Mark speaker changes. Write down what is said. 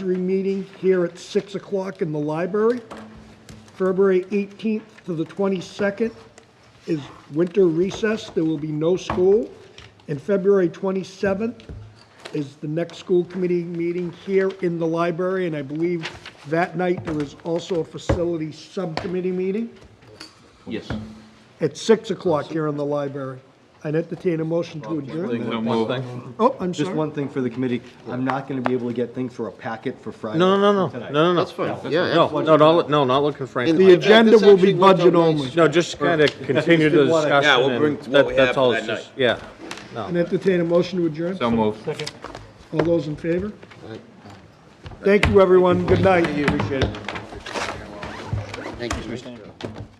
Speaker 1: advisory meeting here at 6 o'clock in the library. February 18th to the 22nd is winter recess, there will be no school. And February 27th is the next school committee meeting here in the library, and I believe that night there is also a facility subcommittee meeting
Speaker 2: Yes.
Speaker 1: at 6 o'clock here in the library. I'd entertain a motion to adjourn.
Speaker 2: No
Speaker 1: Oh, I'm
Speaker 3: Just
Speaker 1: sorry.
Speaker 3: one thing for the committee, I'm not gonna be able to get things for a packet for Friday.
Speaker 4: No, no, no, no,
Speaker 3: tonight.
Speaker 4: no, no.
Speaker 2: That's fine. Yeah,
Speaker 4: No, no, not, li- no, not looking for anything.
Speaker 1: The
Speaker 4: like that.
Speaker 1: agenda will be
Speaker 2: actually worked out
Speaker 1: budget
Speaker 2: nice.
Speaker 1: only.
Speaker 4: No, just kind of continue the
Speaker 3: did wanna-
Speaker 4: discussion.
Speaker 2: Yeah, we'll
Speaker 4: and
Speaker 2: bring what
Speaker 4: that-
Speaker 2: we
Speaker 4: that's
Speaker 2: have
Speaker 4: all
Speaker 2: that
Speaker 4: it's just- Yeah.
Speaker 1: And entertain a motion to adjourn.
Speaker 2: So moved.
Speaker 1: All those in favor? Thank you, everyone. Good night.
Speaker 5: Thank you, Mr.